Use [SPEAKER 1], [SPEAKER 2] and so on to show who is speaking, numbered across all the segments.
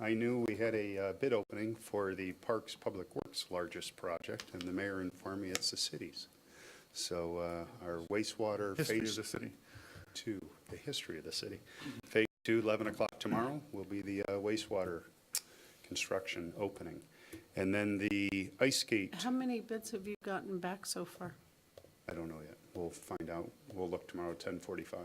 [SPEAKER 1] I knew we had a uh, bid opening for the Parks Public Works largest project, and the mayor informed me it's the city's. So uh, our wastewater
[SPEAKER 2] History
[SPEAKER 1] phase
[SPEAKER 2] of the city.
[SPEAKER 1] two, the history of the city. Phase two, 11 o'clock tomorrow, will be the uh, wastewater construction opening. And then the ice skate,
[SPEAKER 3] How many bids have you gotten back so far?
[SPEAKER 1] I don't know yet. We'll find out. We'll look tomorrow at 10:45.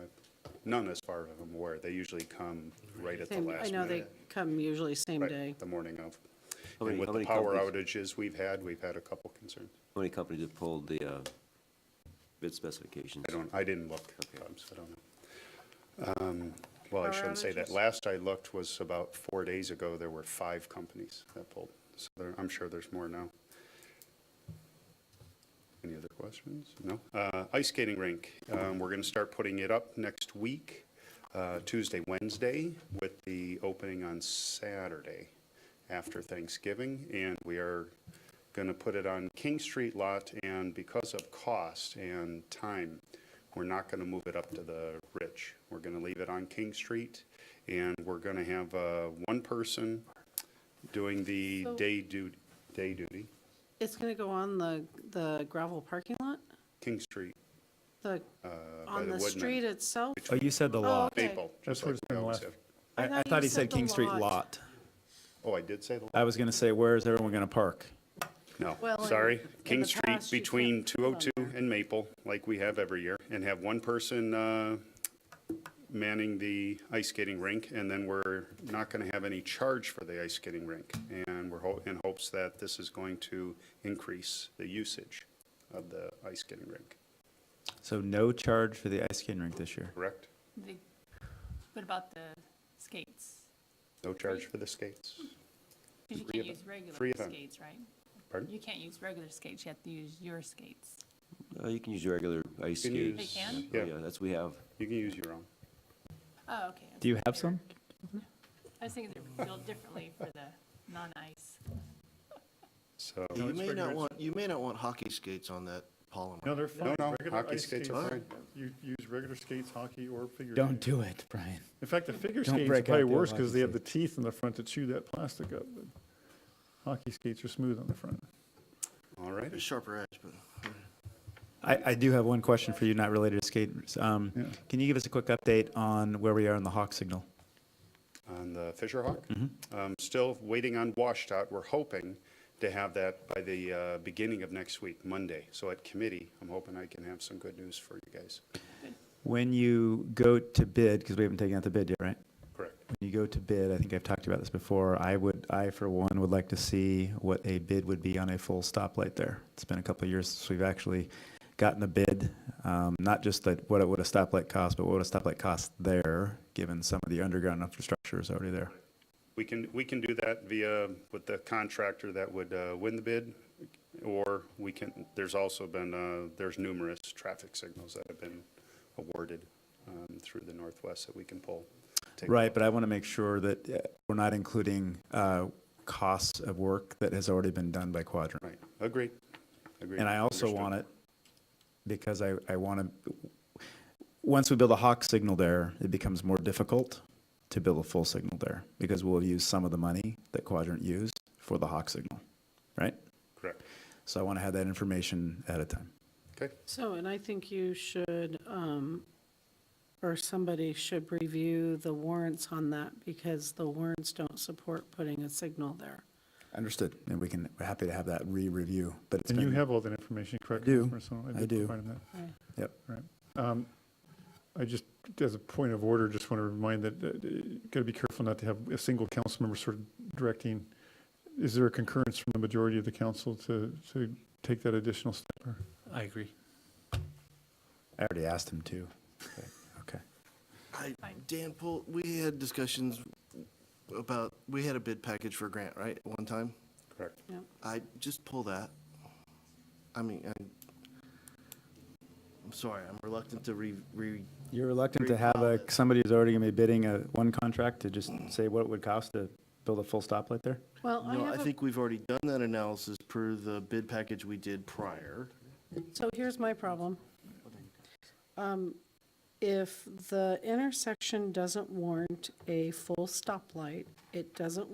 [SPEAKER 1] None as far as I'm aware. They usually come right at the
[SPEAKER 3] Same-
[SPEAKER 1] last
[SPEAKER 3] I
[SPEAKER 1] minute.
[SPEAKER 3] know they come usually same
[SPEAKER 1] Right,
[SPEAKER 3] day.
[SPEAKER 1] The morning of.
[SPEAKER 4] How
[SPEAKER 1] And
[SPEAKER 4] many-
[SPEAKER 1] with
[SPEAKER 4] how
[SPEAKER 1] the
[SPEAKER 4] many
[SPEAKER 1] power
[SPEAKER 4] companies-
[SPEAKER 1] outages we've had, we've had a couple concerns.
[SPEAKER 4] How many companies have pulled the uh, bid specifications?
[SPEAKER 1] I don't, I didn't look, um, so I don't know. Um, Well, I
[SPEAKER 3] Power
[SPEAKER 1] shouldn't say that.
[SPEAKER 3] outages?
[SPEAKER 1] Last I looked was about four days ago, there were five companies that pulled. So there, I'm sure there's more now. Any other questions? No? Uh, Ice skating rink, um, we're going to start putting it up next week, uh, Tuesday, Wednesday, with the opening on Saturday after Thanksgiving. And we are going to put it on King Street lot, and because of cost and time, we're not going to move it up to the Rich. We're going to leave it on King Street, and we're going to have uh, one person doing the
[SPEAKER 3] So-
[SPEAKER 1] day duty, day duty,
[SPEAKER 3] It's going to go on the, the gravel parking lot?
[SPEAKER 1] King Street,
[SPEAKER 3] The,
[SPEAKER 1] uh, by
[SPEAKER 3] on
[SPEAKER 1] the
[SPEAKER 3] the street
[SPEAKER 1] Woodman.
[SPEAKER 3] itself?
[SPEAKER 5] Oh, you said the lot.
[SPEAKER 3] okay.
[SPEAKER 1] Maple. just
[SPEAKER 5] That's where
[SPEAKER 1] like
[SPEAKER 5] it's
[SPEAKER 1] we
[SPEAKER 5] been
[SPEAKER 1] always
[SPEAKER 5] left.
[SPEAKER 1] have.
[SPEAKER 3] I
[SPEAKER 5] I, I thought he
[SPEAKER 3] you
[SPEAKER 5] said
[SPEAKER 3] the
[SPEAKER 5] King Street lot.
[SPEAKER 1] Oh, I did say the,
[SPEAKER 5] I was gonna say, where is everyone gonna park?
[SPEAKER 1] no,
[SPEAKER 3] Well, in-
[SPEAKER 1] sorry.
[SPEAKER 3] in
[SPEAKER 1] King
[SPEAKER 3] the
[SPEAKER 1] Street
[SPEAKER 3] past, you
[SPEAKER 1] between
[SPEAKER 3] can't put on
[SPEAKER 1] 202 and Maple, like we have every year, and have one person uh, manning the ice skating rink, and then we're not going to have any charge for the ice skating rink. And we're ho- in hopes that this is going to increase the usage of the ice skating rink,
[SPEAKER 5] So no charge for the ice skating rink this year.
[SPEAKER 1] correct?
[SPEAKER 6] The- What about the skates?
[SPEAKER 1] No charge for the skates,
[SPEAKER 6] Because you
[SPEAKER 1] Free
[SPEAKER 6] can't
[SPEAKER 1] event-
[SPEAKER 6] use regular
[SPEAKER 1] free event.
[SPEAKER 6] skates, right?
[SPEAKER 1] pardon?
[SPEAKER 6] You can't use regular skates, you have to use your skates.
[SPEAKER 4] Uh, You can use your regular ice
[SPEAKER 1] You can
[SPEAKER 4] skates.
[SPEAKER 1] use-
[SPEAKER 6] They can?
[SPEAKER 4] Oh,
[SPEAKER 1] yeah.
[SPEAKER 4] Yeah, that's what we have.
[SPEAKER 1] You can use your own.
[SPEAKER 6] Oh, okay.
[SPEAKER 5] Do you have some?
[SPEAKER 6] I was thinking they're built differently for the non-ice.
[SPEAKER 1] So,
[SPEAKER 7] You
[SPEAKER 2] Oh, it's
[SPEAKER 7] may
[SPEAKER 2] pretty
[SPEAKER 7] not
[SPEAKER 2] much-
[SPEAKER 7] want, you may not want hockey skates on that polymer.
[SPEAKER 2] No, they're fine.
[SPEAKER 1] no,
[SPEAKER 2] Regular
[SPEAKER 1] hockey
[SPEAKER 2] ice
[SPEAKER 1] skates are
[SPEAKER 2] You use regular skates, hockey, or figure. skating.
[SPEAKER 5] Don't do it, Brian.
[SPEAKER 2] In fact, the figure
[SPEAKER 5] Don't
[SPEAKER 2] skates are
[SPEAKER 5] break
[SPEAKER 2] probably
[SPEAKER 5] out the old
[SPEAKER 2] worse because
[SPEAKER 5] hockey
[SPEAKER 2] they have the teeth in the front to chew that plastic up. but Hockey skates are smooth on the front.
[SPEAKER 1] all right.
[SPEAKER 7] They're Sharper edge, but
[SPEAKER 5] I, I do have one question for you, not related to skaters. Um,
[SPEAKER 2] Yeah.
[SPEAKER 5] can you give us a quick update on where we are on the hawk signal?
[SPEAKER 1] on the Fisher Hawk.
[SPEAKER 5] Mm-hmm.
[SPEAKER 1] Um, Still waiting on washout. We're hoping to have that by the uh, beginning of next week, Monday. So at committee, I'm hoping I can have some good news for you guys.
[SPEAKER 5] When you go to bid, because we haven't taken out the bid yet, right?
[SPEAKER 1] Correct.
[SPEAKER 5] When you go to bid, I think I've talked about this before, I would, I for one would like to see what a bid would be on a full stoplight there. It's been a couple of years since we've actually gotten a bid, um, not just that, what it would a stoplight cost, but what would a stoplight cost there, given some of the underground infrastructure is already there.
[SPEAKER 1] We can, we can do that via, with the contractor that would uh, win the bid, or we can, there's also been, uh, there's numerous traffic signals that have been awarded um, through the Northwest that we can pull. Take a
[SPEAKER 5] Right, but I want to make sure that uh, we're not including, uh, costs of work that has already been done by Quadrant.
[SPEAKER 1] look. Right, agreed, agreed.
[SPEAKER 5] And I also
[SPEAKER 1] Understood.
[SPEAKER 5] want it, because I, I want to, once we build a hawk signal there, it becomes more difficult to build a full signal there, because we'll use some of the money that Quadrant used for the hawk signal, right?
[SPEAKER 1] Correct,
[SPEAKER 5] So I want to have that information ahead of time.
[SPEAKER 1] okay.
[SPEAKER 3] So, and I think you should, um, or somebody should review the warrants on that because the warrants don't support putting a signal there.
[SPEAKER 5] Understood, and we can, we're happy to have that re-review, but it's
[SPEAKER 2] And you
[SPEAKER 5] been-
[SPEAKER 2] have all that information, correct?
[SPEAKER 5] I do.
[SPEAKER 2] Ms. Marcelo?
[SPEAKER 5] I
[SPEAKER 2] did
[SPEAKER 5] do.
[SPEAKER 2] provide him
[SPEAKER 5] Yep,
[SPEAKER 2] that. Right. Um, I just, as a point of order, just want to remind that, uh, you got to be careful not to have a single council member sort of directing. Is there a concurrence from the majority of the council to, to take that additional step? or-
[SPEAKER 8] I agree.
[SPEAKER 5] I already asked him to. Okay,
[SPEAKER 7] I, Dan Pool, we had discussions about, we had a bid package for a grant, right, at one time?
[SPEAKER 1] Correct.
[SPEAKER 3] Yep.
[SPEAKER 7] I, just pull that. I mean, I, I'm sorry, I'm reluctant to re, re,
[SPEAKER 5] you're reluctant to have a, somebody who's already going to be bidding a, one contract to just say what it would cost to build a full stoplight there?
[SPEAKER 3] Well, I
[SPEAKER 7] no, I
[SPEAKER 3] have a
[SPEAKER 7] think we've already done that analysis per the bid package we did prior.
[SPEAKER 3] So here's my problem. Um, If the intersection doesn't warrant a full stoplight, it doesn't